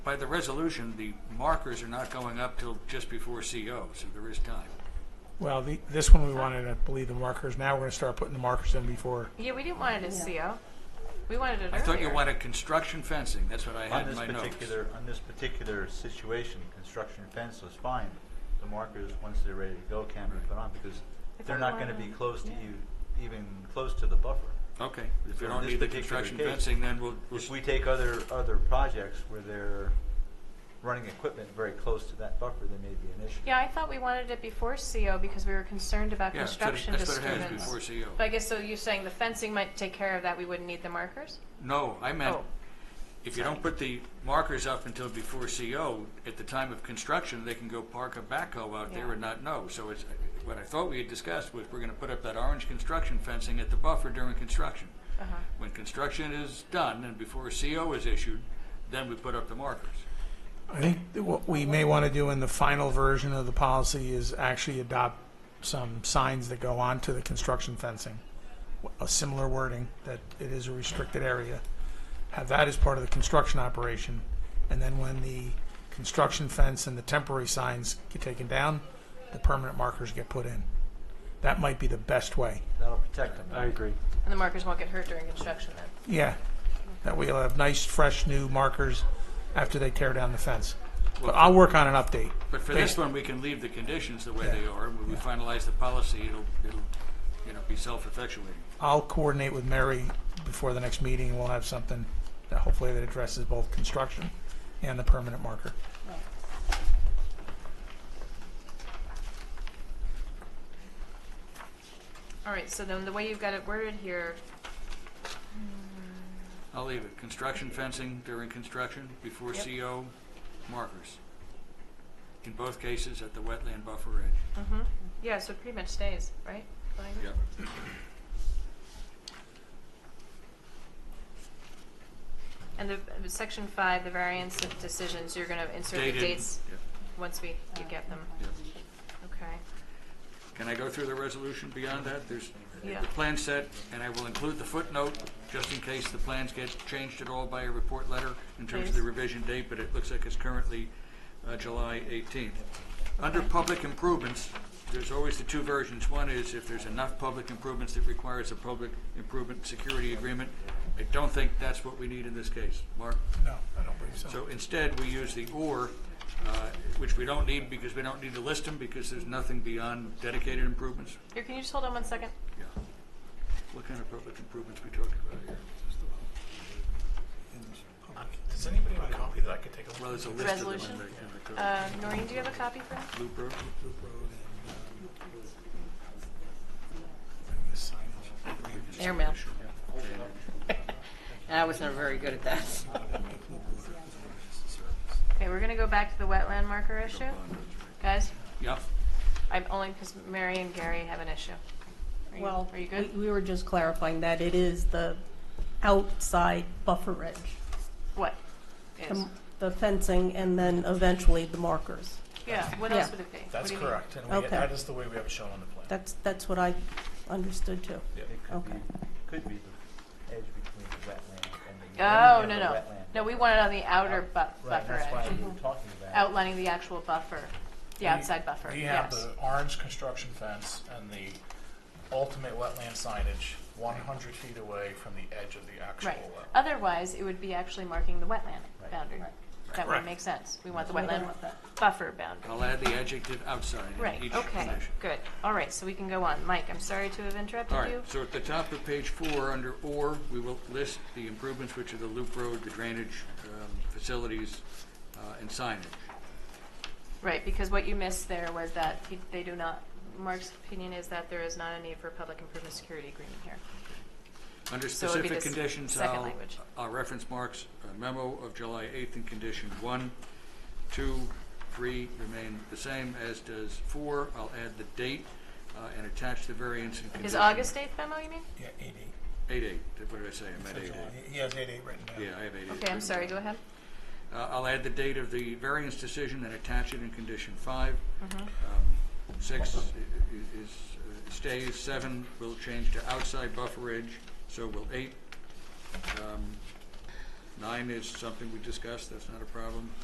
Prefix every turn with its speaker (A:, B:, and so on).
A: By the resolution, the markers are not going up till just before CO, so there is time.
B: Well, the, this one we wanted, I believe, the markers. Now we're gonna start putting the markers in before.
C: Yeah, we didn't want it as CO. We wanted it
A: I thought you
C: earlier.
A: wanted construction fencing, that's what I
D: On
A: had in
D: this
A: my notes.
D: particular, on this particular situation, construction fence was fine. The markers, once they're ready to go, can be put on because
C: I
D: they're
C: thought
D: not
C: we
D: gonna be
C: wanted-
D: close to
C: yeah.
D: you, even close to the buffer.
A: Okay, if
D: So
A: you
D: in
A: don't
D: this
A: need the
D: particular
A: construction
D: case,
A: fencing, then we'll, we'll
D: If we take other, other projects where they're running equipment very close to that buffer, there may be an issue.
C: Yeah, I thought we wanted it before CO because we were concerned about
A: Yeah, so
C: construction
A: that's what it has,
C: disturbance.
A: before CO.
C: But I guess, so you're saying the fencing might take care of that, we wouldn't need the markers?
A: No, I meant,
C: Oh.
A: if you don't put the markers up until before CO, at the time of construction, they can go park a backhoe out there
C: Yeah.
A: and not know. So it's, what I thought we had discussed was, we're gonna put up that orange construction fencing at the buffer during construction.
C: Uh-huh.
A: When construction is done and before CO is issued, then we put up the markers.
B: I think that what we may wanna do in the final version of the policy is actually adopt some signs that go onto the construction fencing. A similar wording, that it is a restricted area. Have that as part of the construction operation. And then when the construction fence and the temporary signs get taken down, the permanent markers get put in. That might be the best way.
D: That'll protect them.
E: I agree.
C: And the markers won't get hurt during construction then?
B: Yeah, that we'll have nice, fresh, new markers after they tear down the fence. But I'll work on an update.
A: But for this one, we can leave the conditions the way they are, and when we finalize the policy, it'll, it'll, you know, be self-effectuating.
B: I'll coordinate with Mary before the next meeting, and we'll have something that hopefully that addresses both construction and the permanent marker.
C: All right, so then the way you've got it worded here,
A: I'll leave it, construction fencing during construction, before
C: Yep.
A: CO, markers. In both cases, at the wetland buffer edge.
C: mhm. yeah, so it pretty much stays, right? Fine. And the, uh, section five, the variance of decisions, you're gonna insert the
A: Dated.
C: dates
A: Yep,
C: once we, you get them,
A: yep.
C: okay?
A: Can I go through the resolution beyond that? There's
C: Yeah.
A: the plan set, and I will include the footnote, just in case the plans get changed at all by a report letter in terms of the
C: Please.
A: revision date, but it looks like it's currently uh, July 18th. Under public improvements, there's always the two versions. One is if there's enough public improvements that requires a public improvement security agreement. I don't think that's what we need in this case. Mark?
B: No, I don't believe
A: So instead, we use the or, uh, which we don't need because we don't need to list them because there's nothing beyond dedicated improvements.
C: Here, can you just hold on one second?
A: Yeah. What kind of public improvements we talking about here?
F: Does anybody have a copy that I could take a look
A: Well, there's a
C: The
A: list of them.
C: resolution?
A: in the- in the code.
C: Uh, Noreen, do you have a copy for me?
A: Loop road.
G: Airmail. I was never very good at that.
C: Okay, we're gonna go back to the wetland marker issue. Guys,
A: Yeah,
C: I'm only because Mary and Gary have an issue. Are you-
H: Well,
C: Are you good?
H: we- we were just clarifying that it is the outside buffer edge,
C: What?
H: the
C: Yes.
H: m- the fencing, and then eventually the markers.
C: Yeah, what
H: Yeah.
C: else would it be? What
F: That's
C: do you mean?
F: correct, and we,
H: Okay.
F: that is the way we have it shown on the plan.
H: That's, that's what I understood too.
D: It could be,
H: Okay.
D: could be the edge between the wetland and the.
C: Oh,
D: and
C: no,
D: the
C: no.
D: wetland.
C: No, we want it on the outer bu-
D: Right,
C: buffer
D: that's why
C: edge,
D: we were talking about.
C: outlining the actual buffer, the outside buffer,
F: We have
C: yes.
F: the orange construction fence and the ultimate wetland signage one hundred feet away from the edge of the actual
C: Right.
F: wetland.
C: Otherwise, it would be actually marking the wetland
D: Right.
C: boundary. That would
F: Correct.
C: make sense. We want the
H: We don't
C: wetland
H: want that.
C: buffer boundary.
A: I'll add the adjective outside in each
C: Right, okay,
A: condition.
C: good. All right, so we can go on. Mike, I'm sorry to have interrupted
A: All
C: you.
A: right, so at the top of page four, under or, we will list the improvements, which are the loop road, the drainage um, facilities, uh, and signage.
C: Right, because what you missed there was that he- they do not, Mark's opinion is that there is not a need for a public improvement security agreement here.
A: Under
C: So it'd be
A: specific
C: the s-
A: conditions,
C: second
A: I'll,
C: language.
A: I'll reference Mark's uh, memo of July 8th in condition one, two, three remain the same, as does four. I'll add the date uh, and attach the variance in condition.
C: Is August 8th memo, you mean?
B: Yeah, eight
A: Eight eight, what did I say? I meant eight eight.
B: He has eight eight written down.
A: Yeah, I have eight eight.
C: Okay, I'm sorry, go ahead.
A: Uh, I'll add the date of the variance decision and attach it in condition five. Um, Six i- i- is, uh, stays, seven will change to outside buffer edge, so will eight. Um, Nine is something we discussed, that's not a problem.